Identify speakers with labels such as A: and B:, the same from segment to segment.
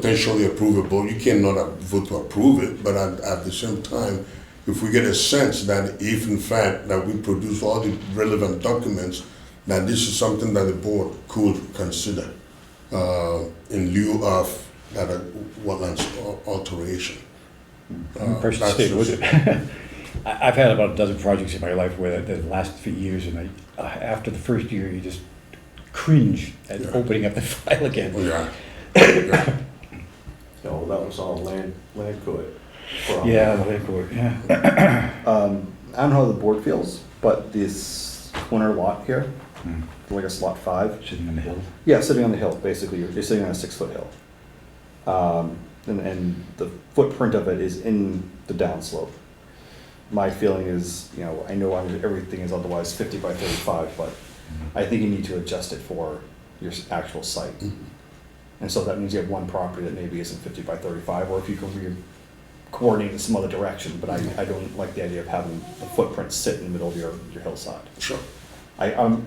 A: potentially approvable. You cannot uh, vote to approve it, but at, at the same time, if we get a sense that if in fact that we produce all the relevant documents, that this is something that the board could consider uh, in lieu of that uh, wetlands al- alteration.
B: I'm a person
A: Uh, that's
B: that stayed with it. I- I've had about a dozen projects in my life where the last few years, and I, uh, after the first year, you just cringe at
A: Yeah.
B: opening up the file again.
A: Yeah. yeah.
C: No, that was all land, land court. problem.
B: Yeah, the land court, yeah.
D: Um, I don't know how the board feels, but this corner lot here,
B: Hmm.
D: like a slot five,
B: Sitting on the hill.
D: yeah, sitting on the hill, basically, you're, you're sitting on a six-foot hill. Um, and, and the footprint of it is in the downslope. My feeling is, you know, I know I'm- everything is otherwise fifty by thirty-five, but I think you need to adjust it for your s- actual site.
B: Mm-hmm.
D: And so that means you have one property that maybe isn't fifty by thirty-five, or if you can re- coordinate in some other direction, but I, I don't like the idea of having the footprint sit in the middle of your, your hillside.
A: Sure.
D: I, um,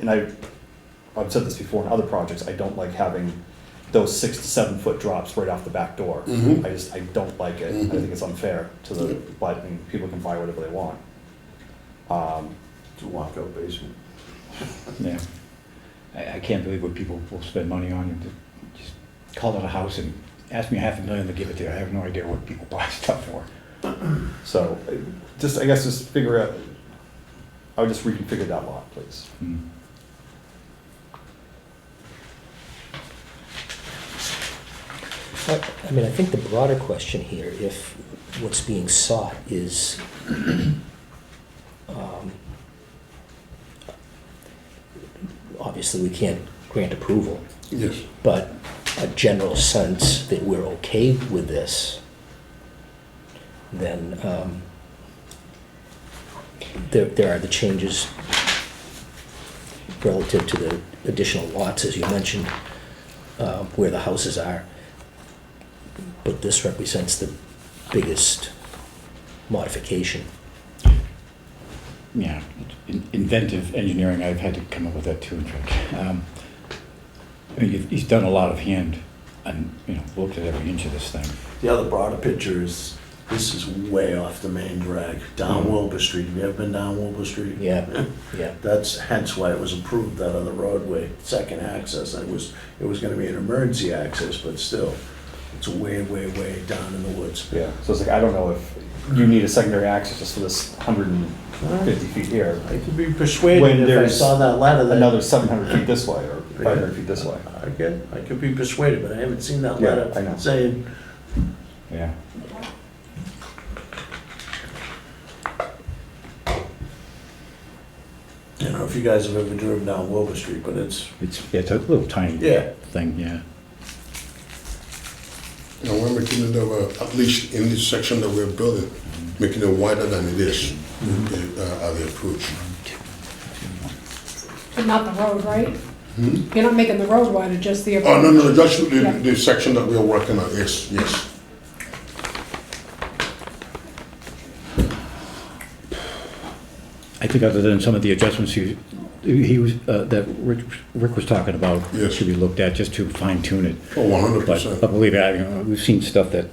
D: and I, I've said this before in other projects, I don't like having those six to seven foot drops right off the back door.
A: Mhm.
D: I just, I don't like it, I think it's unfair to the, but, I mean, people can buy whatever they want. Um,
C: It's a walkout basement.
B: Yeah. I, I can't believe what people will spend money on. You Just call it a house and ask me half a million to give it to you. I have no idea what people buy stuff for.
D: so, uh, just, I guess, just figure out, I would just reconfigure that lot, please.
B: Hmm.
E: I I mean, I think the broader question here, if what's being sought is um, obviously we can't grant approval,
A: Yes.
E: but a general sense that we're okay with this, then um, there there are the changes relative to the additional lots, as you mentioned, uh, where the houses are. But this represents the biggest modification.
B: Yeah, in- inventive engineering, I've had to come up with that too, in fact. Um, I mean, you've- he's done a lot of hand and, you know, looked at every inch of this thing.
C: The other broader picture is, this is way off the main drag, down
D: Mm.
C: Wilbur Street. Have you ever been down Wilbur Street?
E: Yeah, yeah.
C: That's hence why it was approved that on the roadway, second access, and it was, it was gonna be an emergency access, but still, it's way, way, way down in the woods.
D: Yeah. So it's like, I don't know if you need a secondary access just for this hundred and fifty feet here,
C: I could be
D: When
C: persuaded if I
D: there's
C: saw that ladder that.
D: another seven hundred feet this way, or five hundred feet this way.
C: I get, I could be persuaded, but I haven't seen that
D: Yeah,
C: letter
D: I know.
C: saying,
B: Yeah.
C: you know, if you guys have ever driven down Wilbur Street, but it's,
B: It's, yeah, it's a little tiny
C: Yeah.
B: thing, yeah.
A: You know, we're making it, uh, at least in this section that we're building, making it wider than it is uh, at the approach.
F: But not the road, right? You're not making the road wider, just the.
A: Hmm? Oh, no, no, just the,
F: Yeah.
A: the section that we're working on, yes, yes.
B: I think other than some of the adjustments he, he was, uh, that Rick Rick was talking about,
A: Yes.
B: should be looked at just to fine tune it.
A: Oh, one hundred
B: But,
A: percent.
B: but believe me, I, you know, we've seen stuff that,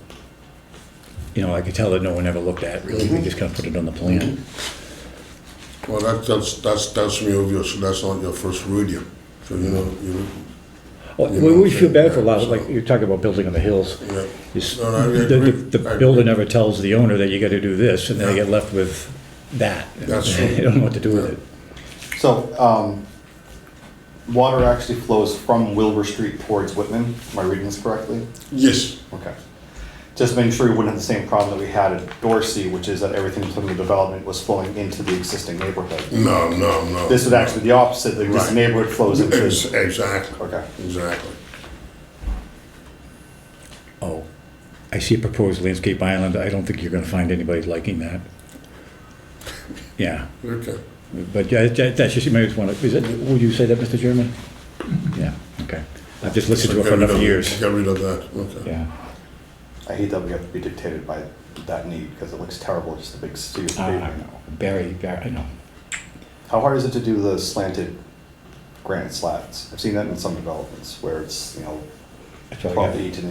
B: you know, I could tell that no one ever looked at, really. They just kind of put it on the plan.
A: Well, that, that's, that's, that's me obvious, that's not your first rodeo. So, you know, you,
B: Well,
A: You
B: we
A: know,
B: we feel bad for a lot,
A: so-
B: of like, you're talking about building on the hills.
A: yeah,
B: It's-
A: No, no, I
B: The,
A: agree.
B: the-
A: I
B: the
A: agree.
B: builder never tells the owner that you gotta do this, and then they
A: Yeah.
B: get left with that.
A: That's true.
B: They don't know what to do with it.
D: So, um, water actually flows from Wilbur Street towards Whitman. Am I reading this correctly?
A: Yes,
D: Okay. Just making sure we wouldn't have the same problem that we had at Dorsey, which is that everything from the development was flowing into the existing neighborhood.
A: no, no, no.
D: This would actually be the opposite, that this
A: Right.
D: neighborhood flows into.
A: Ex- Exactly.
D: Okay.
A: Exactly.
B: Oh, I see a proposed landscape island. I don't think you're gonna find anybody liking that. Yeah,
A: Okay.
B: but yeah, that- that's just, you might just wanna, is it, would you say that, Mr. Chairman? Yeah, okay. I've just listened to it
A: Get
B: for
A: rid
B: enough
A: of-
B: years.
A: Get rid of that, okay.
B: Yeah.
D: I hate that we have to be dictated by that need, because it looks terrible, just a big sea of
B: Uh, I
D: pavement.
B: know. Barry, Barry, I know.
D: How hard is it to do the slanted granite slats? I've seen that in some developments, where it's, you know,
B: That's all I got.
D: twelve to eighteen